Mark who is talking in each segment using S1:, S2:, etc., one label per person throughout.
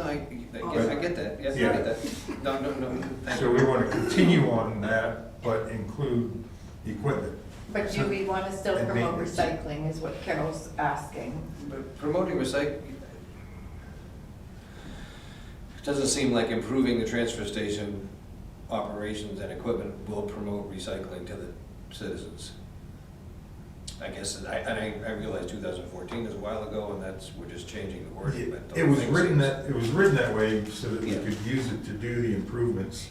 S1: I, I get- I get that, yes, I get that. No, no, no, thank
S2: So
S1: you.
S2: we want to continue on that, but include equipment.
S3: But do we want to still
S2: And
S3: promote
S2: maintenance.
S3: recycling is what Carol's asking.
S1: But Promoting recycling doesn't seem like improving the transfer station operations and equipment will promote recycling to the citizens. I guess, and I, and I I realize two thousand fourteen is a while ago, and that's, we're just changing the wording, but. the
S2: It was
S1: thing
S2: written
S1: seems-
S2: that, it was written that way so that we
S1: Yeah.
S2: could use it to do the improvements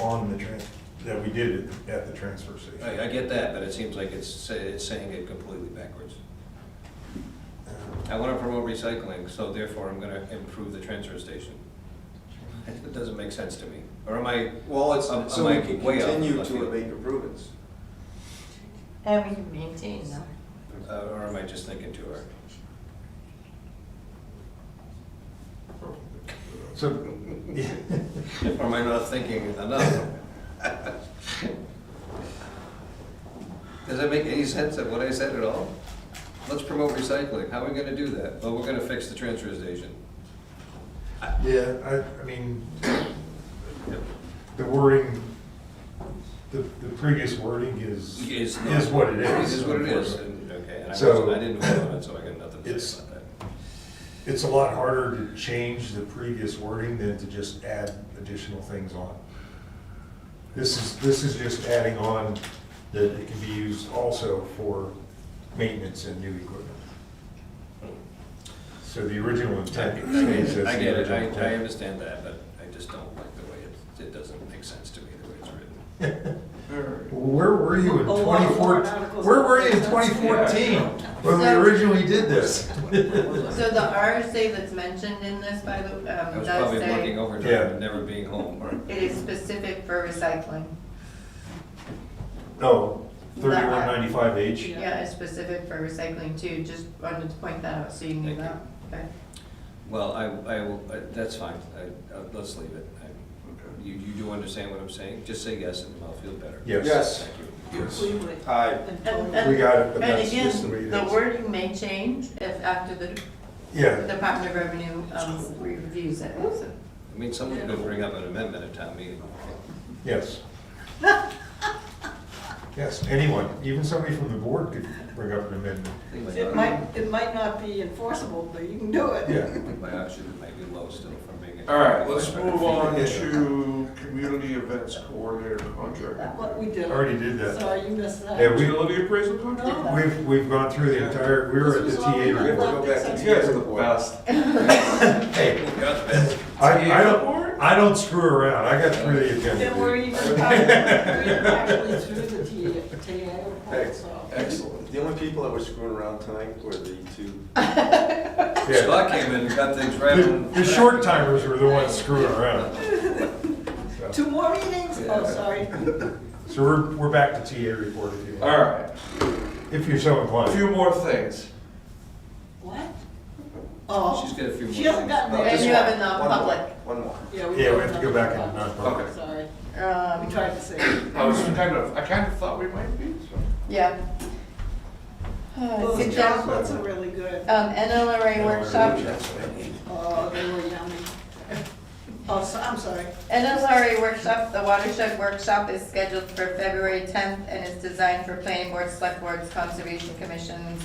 S2: on the trans, that we did at- at the transfer station.
S1: I, I get that, but it seems like it's, say- it's saying it completely backwards. Um, I wanna promote recycling, so therefore I'm gonna improve the transfer station. It doesn't make sense to me, or am I,
S4: Well, it's,
S1: Am-
S4: so
S1: am
S4: we
S1: I
S4: can
S1: way off
S4: continue
S1: left
S4: to
S1: field?
S4: make improvements.
S3: And we can maintain them.
S1: uh, or am I just thinking too hard?
S2: So, yeah,
S1: Or am I not thinking enough? Does that make any sense of what I said at all? Let's promote recycling, how are we gonna do that? Well, we're gonna fix the transfer station.
S2: yeah, I, I mean, the wording, the, the previous wording is,
S1: Is
S2: is
S1: not-
S2: what it is.
S1: Is what it is,
S2: unfortunately.
S1: and, okay, and I
S2: So-
S1: wasn't, I didn't vote on it, so I got nothing to
S2: It's-
S1: say about that.
S2: It's a lot harder to change the previous wording than to just add additional things on. This is, this is just adding on that it can be used also for maintenance and new equipment. So the original
S1: I
S2: intent stays as
S1: I get
S2: the
S1: it,
S2: original.
S1: I, I
S2: plan.
S1: understand that, but I just don't like the way it, it doesn't make sense to me the way it's written.
S2: Where were you in
S5: A lot of
S2: twenty
S5: warrant
S2: fourteen?
S5: articles.
S2: Where were you in twenty fourteen when we
S3: So-
S2: originally did this?
S3: So the RSA that's mentioned in this, by the, um,
S1: I was
S3: does
S1: probably
S3: say
S1: working overtime
S2: Yeah.
S1: and never being home, or,
S3: it is specific for recycling.
S2: No, thirty-one ninety-five H.
S5: Yeah.
S3: Yeah, it's specific for recycling too, just wanted to point that out, so you knew
S1: Thank
S3: that. Okay.
S1: well, I, I will, I- that's fine, I, uh, let's leave it. I- You, you do understand what I'm saying? Just say yes and I'll feel better.
S2: Yes.
S4: Yes.
S1: Thank you.
S2: Yes.
S5: We would.
S4: Aye.
S5: And
S3: And-
S5: totally-
S3: and-
S2: We got it,
S3: And
S2: but that's just the way
S3: again,
S2: it
S3: the
S2: is.
S3: wording may change if after the
S2: Yeah,
S3: Department of Revenue um, reviews it, so.
S1: I mean, someone's gonna bring up an amendment at town meeting.
S2: Yes. Yes, anyone, even somebody from the board could bring up an amendment.
S1: I think my
S5: It
S1: ox-
S5: might, it might not be enforceable, but you can do it.
S2: Yeah.
S1: I think my oxygen might be low still from being.
S4: All right, let's move on to community events coordinator contract.
S5: What we did.
S2: Already did that.
S5: So uh, you missed that.
S2: Yeah, we-
S4: Utility appraisal contract?
S5: No.
S2: We've, we've gone through the entire, we were at the
S5: This was all
S2: TA
S5: we
S4: We have to
S2: report.
S4: go back, you guys are the best.
S2: Hey,
S1: Yes,
S2: I, I don't, I don't screw around, I got through the
S5: And we're
S2: agenda.
S5: even, probably- we're actually through the TA, TA report, so.
S4: Excellent. The only people that were screwing around tonight were the two.
S1: Ben.
S2: Yeah.
S1: Scott came in and got things right.
S2: The,
S1: on-
S2: the short timers were the ones screwing around.
S5: Two more meetings? Oh, sorry.
S2: So we're, we're back to TA report if you
S4: All
S2: want,
S4: right,
S2: if you're so
S4: a
S2: inclined.
S4: few more things.
S5: What? Oh.
S1: She's got a few more.
S5: She hasn't
S1: things.
S5: gotten
S4: No,
S5: there.
S3: And
S4: Uh, just
S3: you have
S4: one.
S3: a
S4: One more.
S3: non-public.
S4: One more.
S5: we
S2: Yeah, we
S5: did
S2: have to go back and uh,
S5: another
S2: non-public.
S5: one. Sorry,
S3: Um,
S5: we tried to say. it.
S4: I was kind of, I kind of thought we might be, so.
S3: Yeah.
S5: Those
S3: Sit down.
S5: chocolates are really good.
S3: Um, NLRA workshop,
S5: Oh, they were yummy. Oh, so, I'm sorry.
S3: NLRA workshop, the watershed workshop is scheduled for February tenth and is designed for planning boards, select boards, conservation commissions,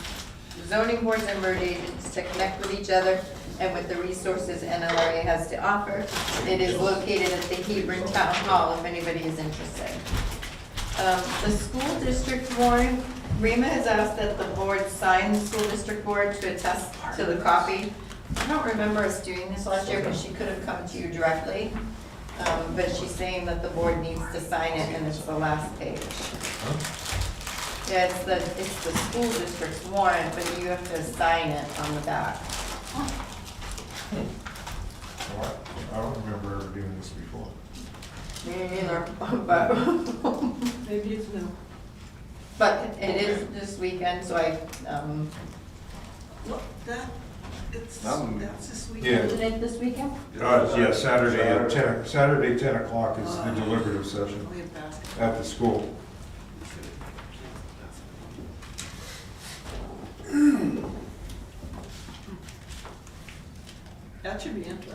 S3: zoning boards and road agents to connect with each other and with the resources NLRA has to offer. It is located at the Hebron Town Hall if anybody is interested. Um, The school district warrant, Rima has asked that the board sign the school district board to attest to the copy. I don't remember us doing this last year, but she could have come to you directly. Um, But she's saying that the board needs to sign it, and it's the last page. Yeah, it's the, it's the school district's warrant, but you have to sign it on the back.
S2: I don't remember ever doing this before.
S3: Me neither, but,
S5: Maybe it's new.
S3: but it is this weekend, so I, um,
S5: Look, that, it's,
S1: Um,
S5: that's this
S2: Yeah.
S5: weekend.
S3: isn't it this weekend?
S2: Uh, yeah, Saturday at ten, Saturday ten o'clock is the deliberative session
S5: We have basketball.
S2: at the school.
S5: That should be interesting.